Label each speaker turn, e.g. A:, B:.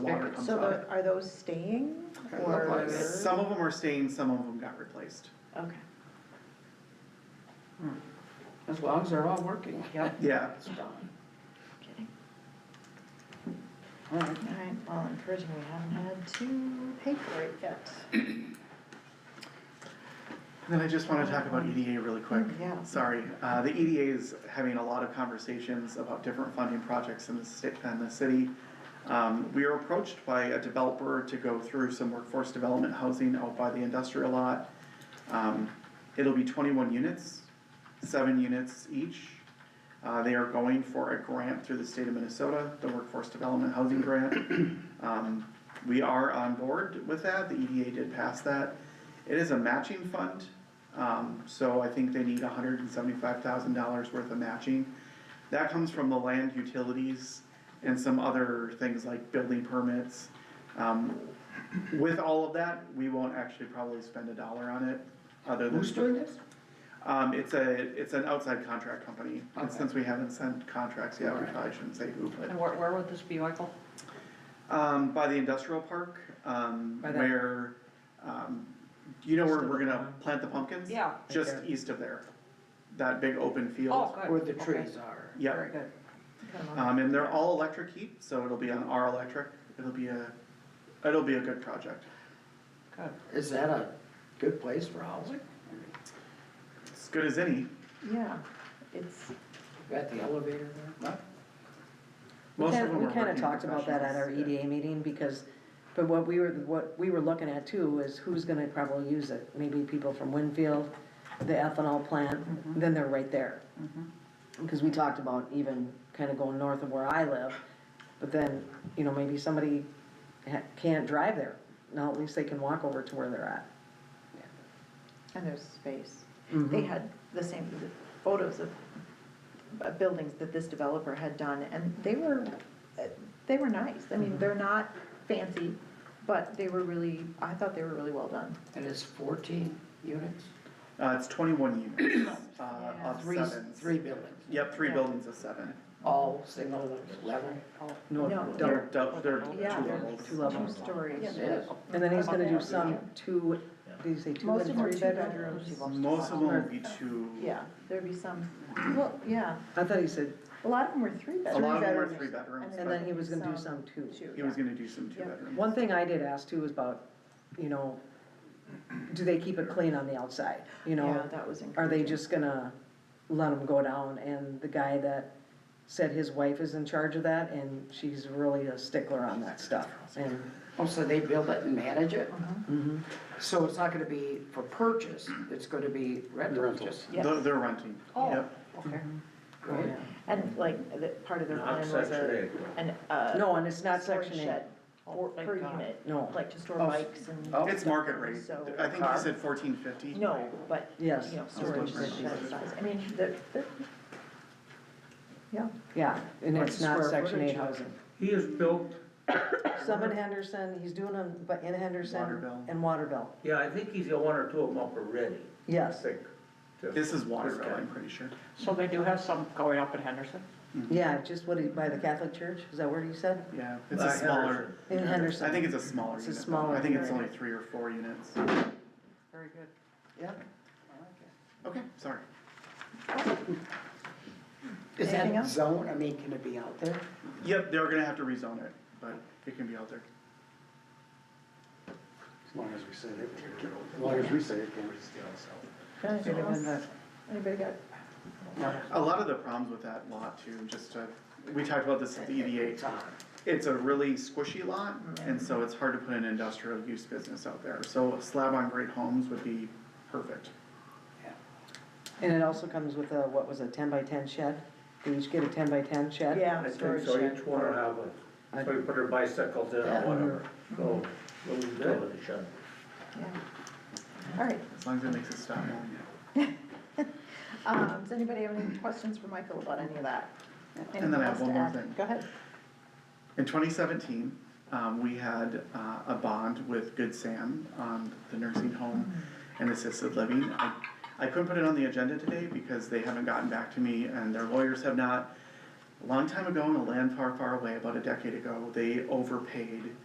A: water comes
B: So
A: out.
B: tho- are those staying or?
A: Some of them are staying, some of them got replaced.
B: Okay,
C: As long as they're all working, yep.
A: Yeah,
B: kidding.
C: All
B: All
C: right.
B: right, well, I'm pretty, we haven't had to pay for it yet.
A: And then I just wanna talk about EDA really quick.
B: Yeah.
A: Sorry, uh, the EDA is having a lot of conversations about different funding projects in the state, in the city. Um, we were approached by a developer to go through some workforce development housing out by the industrial lot. Um, it'll be twenty-one units, seven units each. Uh, they are going for a grant through the state of Minnesota, the Workforce Development Housing Grant. Um, we are on board with that, the EDA did pass that. It is a matching fund, um, so I think they need hundred and seventy-five thousand dollars worth of matching. That comes from the land utilities and some other things like building permits. Um, with all of that, we won't actually probably spend a dollar on it, other than.
C: Who's doing this?
A: Um, it's a, it's an outside contract company, and
C: Okay.
A: since we haven't sent contracts yet, we probably shouldn't say who, but,
D: And where, where would this be, Michael?
A: um, by the industrial park, um,
D: By that-
A: where, um, you know where
D: Just
A: we're
D: over
A: gonna
D: there.
A: plant the pumpkins?
D: Yeah.
A: Just
D: Okay.
A: east of there, that big open field.
D: Oh, good.
C: Where the
D: Okay.
C: trees are.
A: Yep.
D: Very good.
A: Um, and they're all electric heat, so it'll be on our electric, it'll be a, it'll be a good project.
D: Good.
C: Is that a good place for housing?
A: As good as any,
B: Yeah, it's,
C: Got the elevator there?
E: We
A: most of
E: kind,
A: them
E: we
A: are
E: kind of
A: working
E: talked about that at our
A: professionals.
B: E
E: EDA meeting, because, but what we were, what we were looking at too is who's gonna probably use it. Maybe people from Winfield, the ethanol plant,
B: Mm-hmm.
E: then they're right there. Because we talked about even kind of going north of where I live, but then, you know, maybe somebody ha- can't drive there. Now at least they can walk over to where they're at.
B: and there's space.
E: Mm-hmm.
B: They had the same photos of uh, buildings that this developer had done, and they were, uh, they were nice. I
E: Mm-hmm.
B: mean, they're not fancy, but they were really, I thought they were really well done.
C: And it's fourteen units?
A: Uh, it's twenty-one units, uh,
B: Yeah.
A: of
C: Three,
A: sevens.
C: three buildings,
A: Yep, three
B: Yeah.
A: buildings of seven.
C: all single level?
E: No,
B: No,
E: double.
A: They're, dou- they're two
B: Yeah.
A: levels.
E: Two levels.
B: Stories.
C: It is.
E: And then he's gonna do
B: Yeah.
E: some two, did you say two
B: Most
E: and
B: of them are
E: three
B: two
E: bedrooms?
B: bedrooms.
A: Most of them will be two.
B: Yeah, there'd be some, well, yeah,
E: I thought he said,
B: a lot of them were three
A: A
B: bedrooms.
A: lot of them are
E: bedrooms.
A: three bedrooms,
E: and then he was gonna do
B: Some
E: some two.
B: Two,
A: but he
B: yeah.
A: was gonna do some two
B: Yeah.
A: bedrooms.
E: One thing I did ask too is about, you know, do they keep it clean on the outside? You
B: Yeah,
E: know,
B: that was
E: are they
B: encouraging.
E: just gonna let them go down? And the guy that said his wife is in charge of that and she's really a stickler on that stuff. And,
C: Oh, so they build it and manage it?
F: Mm-hmm.
E: mhm.
C: So it's not gonna be for purchase, it's gonna be rental, just.
B: Yeah.
A: They're, they're renting,
D: Oh,
A: yep.
D: okay.
C: Right.
B: And like, the, part of their
G: Not
B: plan was a,
G: Section
B: an, uh.
E: No, and it's not
B: storage
E: Section
B: shed
E: eight.
B: for-
D: Oh, thank
B: Per
D: God.
B: unit,
E: No.
B: like to store
C: Oh,
B: bikes and.
C: oh.
A: It's market rate.
B: So-
A: I think he said fourteen fifty.
B: No, but, you know,
E: Yes.
B: storage
A: Storage.
B: shed size, I mean, they're, they're. Yeah,
E: yeah, and
C: What's
E: it's
C: the
E: not
C: square
E: section
C: footage
E: eight
C: of it?
E: housing.
G: He has built,
E: Some in Henderson, he's doing them, but in Henderson
A: Waterville.
E: and Waterville,
G: yeah, I think he's got one or two of them up already, I
E: yes.
G: think. too.
A: This is Waterville, I'm pretty sure.
C: So they do have some going up in Henderson?
E: Yeah, just what, he- by the Catholic Church, is that where he said?
A: Yeah, it's a
G: Like
A: smaller,
G: Henderson.
E: In Henderson.
A: I think it's a smaller
E: It's
A: unit.
E: a
A: though.
E: smaller
A: I think it's
E: unit.
A: only three or four units.
D: Very good.
C: Yeah.
A: Okay, sorry.
C: Is
B: Anything
C: that
B: else?
C: zone, I mean, can it be out there?
A: Yep, they're gonna have to rezone it, but it can be out there.
F: As long as we say it, as long as we say it, we're just down south.
B: anything else? Anybody got,
A: A lot of the problems with that lot too, just to, we talked about this at the E EDA. It's a really squishy lot, and so it's hard to put an industrial use business out there, so slab on grade homes would be perfect.
E: And it also comes with a, what was it, ten by ten shed? They each get a ten by ten shed?
B: yeah,
G: I think
B: storage
G: so,
B: shed.
G: each one will have
E: I-
G: a, so you put their bicycles in or whatever,
B: Mm-hmm.
G: so, little utility shed.
B: yeah. All right,
A: As long as it makes it stop moving.
B: um, does anybody have any questions for Michael about any of that?
A: And then I have one
B: Anything
A: more
B: else to add?
A: thing.
B: Go ahead.
A: In twenty seventeen, um, we had, uh, a bond with Good Sam on the nursing home and assisted living. I, I couldn't put it on the agenda today because they haven't gotten back to me and their lawyers have not. a long time ago in a land far, far away, about a decade ago, they overpaid